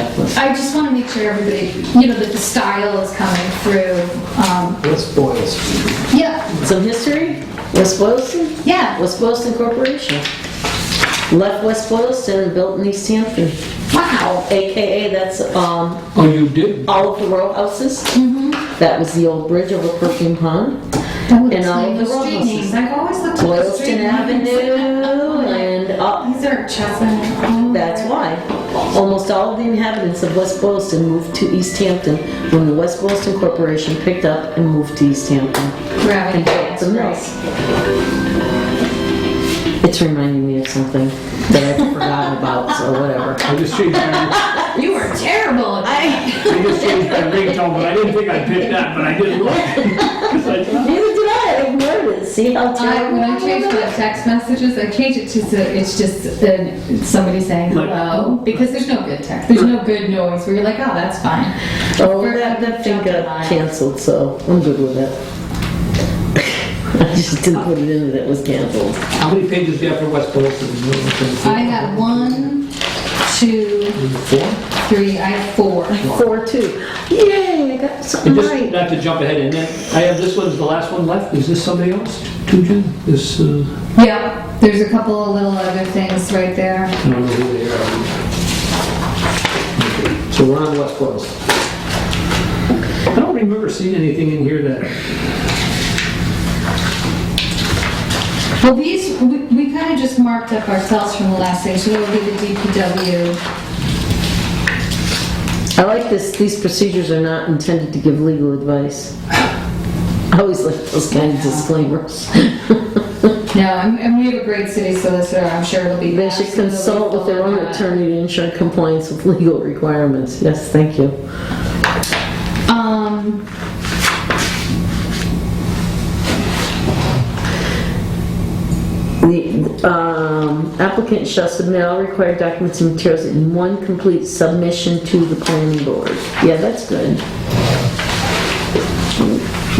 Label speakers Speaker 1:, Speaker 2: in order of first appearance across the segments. Speaker 1: I just want to make sure everybody, you know, that the style is coming through. Um,
Speaker 2: What's Boylston?
Speaker 1: Yeah,
Speaker 3: Some history, West Boylston,
Speaker 1: yeah,
Speaker 3: West Boylston Corporation. Left West Boylston and built in East Hampton,
Speaker 1: wow.
Speaker 3: AKA that's um,
Speaker 2: Oh, you did?
Speaker 3: all of the row houses. That was the old bridge over Perfume Pond,
Speaker 1: That would
Speaker 3: And all
Speaker 1: explain
Speaker 3: the
Speaker 1: the street
Speaker 3: roadhouses.
Speaker 1: names. I've always looked at the street
Speaker 3: Boylston Avenue,
Speaker 1: names.
Speaker 3: and up.
Speaker 1: These are Chapin. oh,
Speaker 3: That's why. Almost all of the inhabitants of West Boylston moved to East Hampton when the West Boylston Corporation picked up and moved to East Hampton.
Speaker 1: Gravity.
Speaker 3: It's a mess. It's reminding me of something that I forgot about, so whatever.
Speaker 2: I just changed my,
Speaker 1: You are terrible.
Speaker 3: I,
Speaker 2: I just changed my ringtone, but I didn't think I picked that, but I didn't look. 'Cause I thought-
Speaker 3: neither did I, I ignored it, see how
Speaker 1: I,
Speaker 3: terrible?
Speaker 1: when I change my text messages, I change it to, so it's just uh, somebody saying
Speaker 2: Like-
Speaker 1: hello, because there's no good text, there's no good noise where you're like, oh, that's fine.
Speaker 3: Oh, that, that thing got canceled, so I'm good with it. I just didn't put it in that it was canceled.
Speaker 2: How many pages do you have for West Boylston?
Speaker 1: I have one, two,
Speaker 2: Four?
Speaker 1: three, I have four.
Speaker 3: Four, two. Yay, I got
Speaker 2: And
Speaker 3: something
Speaker 2: just,
Speaker 3: right.
Speaker 2: not to jump ahead in that, I have this one's the last one left, is this somebody else? Tuja? This, uh, I
Speaker 1: Yep, there's a couple of little other things right there.
Speaker 2: don't know who they are. Okay, So we're on West Boylston. I don't remember seeing anything in here that,
Speaker 1: Well, these, we, we kind of just marked up ourselves from the last thing, so that would be the DPW.
Speaker 3: I like this, these procedures are not intended to give legal advice. I always like those kind of disclaimers.
Speaker 1: No, and, and we have a great city solicitor, I'm sure it'll be.
Speaker 3: They should
Speaker 1: absolutely
Speaker 3: consult with their own
Speaker 1: full of that.
Speaker 3: attorney to ensure compliance with legal requirements. Yes, thank you.
Speaker 1: Um,
Speaker 3: The um, applicant shall submit all required documents and materials in one complete submission to the planning board. Yeah, that's good.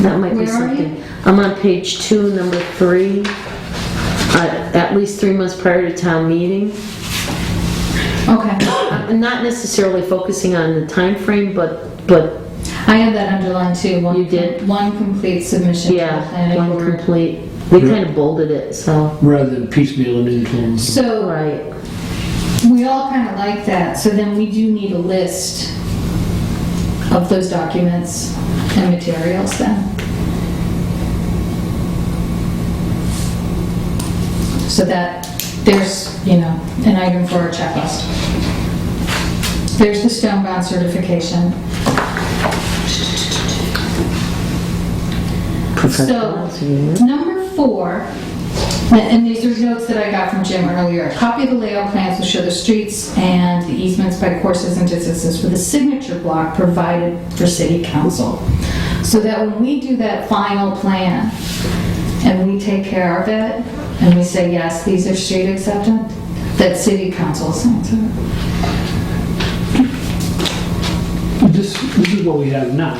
Speaker 3: That might be
Speaker 1: Where are you?
Speaker 3: something. I'm on page two, number three, uh, at least three months prior to town meeting.
Speaker 1: okay,
Speaker 3: I'm not necessarily focusing on the time frame, but, but,
Speaker 1: I have that underlined too. One-
Speaker 3: You did?
Speaker 1: One complete submission to the
Speaker 3: yeah,
Speaker 1: planning
Speaker 3: one
Speaker 1: board.
Speaker 3: complete. They kind of bolded it, so,
Speaker 2: rather than piecemealing into them.
Speaker 1: So,
Speaker 3: right.
Speaker 1: we all kind of like that, so then we do need a list of those documents and materials then. So that, there's, you know, an item for our checklist. There's the stone bound certification.
Speaker 3: Professional, yeah.
Speaker 1: Number four, and these are notes that I got from Jim earlier. A Copy of the layout plans will show the streets and the easements by courses and distances with a signature block provided for city council. So that when we do that final plan and we take care of it and we say, yes, these are street acceptance, that city council signs it.
Speaker 2: This, this is what we have now.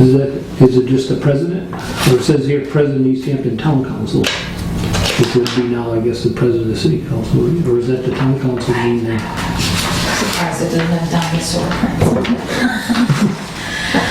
Speaker 2: Is that, is it just the president? Or it says here, President East Hampton Town Council. It would be now, I guess, the president of the city council, or is that the town council being there?
Speaker 1: Surprised it doesn't have dinosaur prints.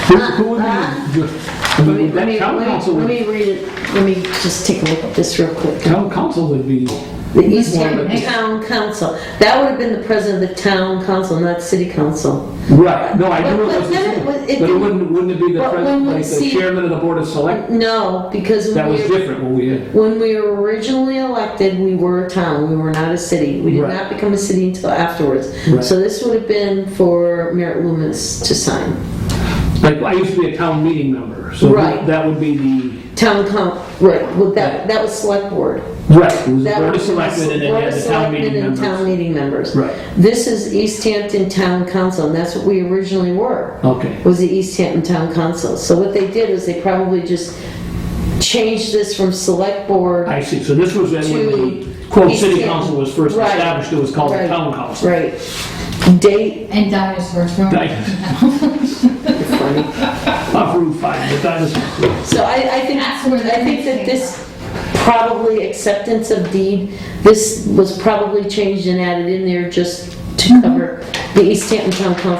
Speaker 2: Who who would be? I
Speaker 3: Let me,
Speaker 2: mean,
Speaker 3: let
Speaker 2: that
Speaker 3: me,
Speaker 2: town
Speaker 3: let
Speaker 2: council
Speaker 3: me- let
Speaker 2: would,
Speaker 3: me read it, let me just take a look at this real quick.
Speaker 2: town council would be,
Speaker 3: The East
Speaker 1: One of
Speaker 3: Hampton
Speaker 1: the-
Speaker 3: Town Council, that would have been the president of the town council, not city council.
Speaker 2: right, no, I know.
Speaker 3: But-
Speaker 2: it
Speaker 3: but then
Speaker 2: was-
Speaker 3: it was- it
Speaker 2: But it
Speaker 3: didn't-
Speaker 2: wouldn't, wouldn't it be the
Speaker 3: But
Speaker 2: president,
Speaker 3: when we
Speaker 2: like the
Speaker 3: see-
Speaker 2: chairman of the board of select?
Speaker 3: No, because
Speaker 2: That
Speaker 3: when
Speaker 2: was
Speaker 3: we,
Speaker 2: different when we had,
Speaker 3: when we were originally elected, we were a town, we were not a city. We did
Speaker 2: Right.
Speaker 3: not become a city until afterwards.
Speaker 2: Right.
Speaker 3: So this would have been for Merritt Loomis to sign.
Speaker 2: like, I used to be a town meeting member, so
Speaker 3: Right.
Speaker 2: that would be the,
Speaker 3: Town coun, right, well, that, that was select board.
Speaker 2: right, it was the
Speaker 3: That
Speaker 2: board of
Speaker 3: was
Speaker 2: selectmen and then you
Speaker 3: Board
Speaker 2: had
Speaker 3: of
Speaker 2: the town meeting
Speaker 3: Selectmen and
Speaker 2: members.
Speaker 3: town meeting members.
Speaker 2: Right.
Speaker 3: This is East Hampton Town Council, and that's what we originally were.
Speaker 2: Okay.
Speaker 3: was the East Hampton Town Council. So what they did was they probably just changed this from select board.
Speaker 2: I see, so this was then when
Speaker 3: To
Speaker 2: the quote
Speaker 3: East
Speaker 2: city
Speaker 3: Hampton.
Speaker 2: council was first
Speaker 3: Right.
Speaker 2: established, it was called the
Speaker 3: Right.
Speaker 2: town council.
Speaker 3: Right. Date,
Speaker 1: And dinosaurs.
Speaker 2: Right.
Speaker 3: funny.
Speaker 2: Not Route 5, but that is,
Speaker 3: So I, I think,
Speaker 1: That's where the
Speaker 3: I think that
Speaker 1: thing
Speaker 3: this probably acceptance of deed, this was probably changed and added in there just to cover the East Hampton Town Council